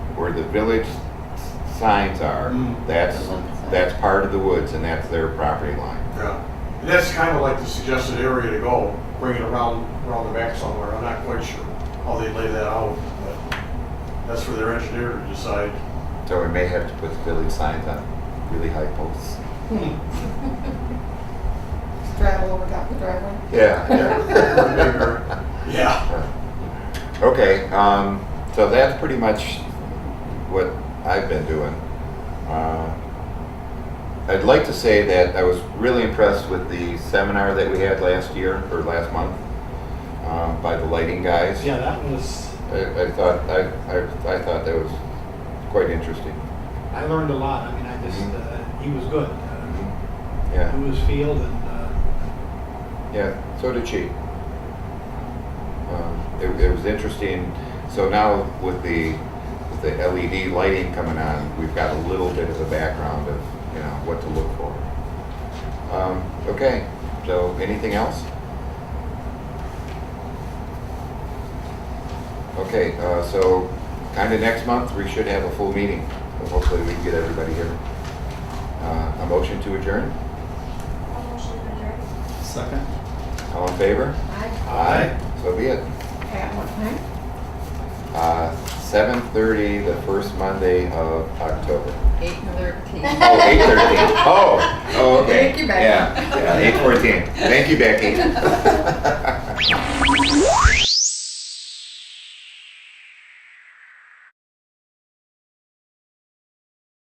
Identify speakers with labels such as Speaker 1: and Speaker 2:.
Speaker 1: where the village s- signs are,
Speaker 2: Mm.
Speaker 1: that's,
Speaker 3: The woods.
Speaker 1: that's part of the woods and that's their property line.
Speaker 2: Yeah, and that's kind of like the suggested area to go, bring it around, around the back somewhere. I'm not quite sure how they lay that out, but that's for their engineer to decide.
Speaker 1: So we may have to put the village signs on really high posts.
Speaker 4: straddle over top of the driveway.
Speaker 1: Yeah.
Speaker 2: Yeah. Yeah,
Speaker 1: Okay, um, so that's pretty much what I've been doing. Uh, I'd like to say that I was really impressed with the seminar that we had last year, or last month, um, by the lighting guys.
Speaker 5: Yeah, that was,
Speaker 1: I, I thought, I, I, I thought that was quite interesting.
Speaker 5: I learned a lot. I mean, I just,
Speaker 1: Mhm.
Speaker 5: uh, he was good. Uh,
Speaker 1: Yeah,
Speaker 5: Knew his field and, uh,
Speaker 1: yeah, so did she. Um, It, it was interesting, so now with the, with the LED lighting coming on, we've got a little bit of a background of, you know, what to look for. Um, okay, so anything else? Okay, uh, so kinda next month, we should have a full meeting, so hopefully we can get everybody here. Uh, a motion to adjourn?
Speaker 6: Second.
Speaker 1: All in favor?
Speaker 4: Aye.
Speaker 1: Aye. So be it.
Speaker 4: At what time?
Speaker 1: Uh, 7:30, the first Monday of October.
Speaker 3: Eight thirteen.
Speaker 1: Oh, 8:30. Oh, oh, okay.
Speaker 4: Thank you, Becky.
Speaker 1: Yeah, yeah, 8:14. Thank you, Becky.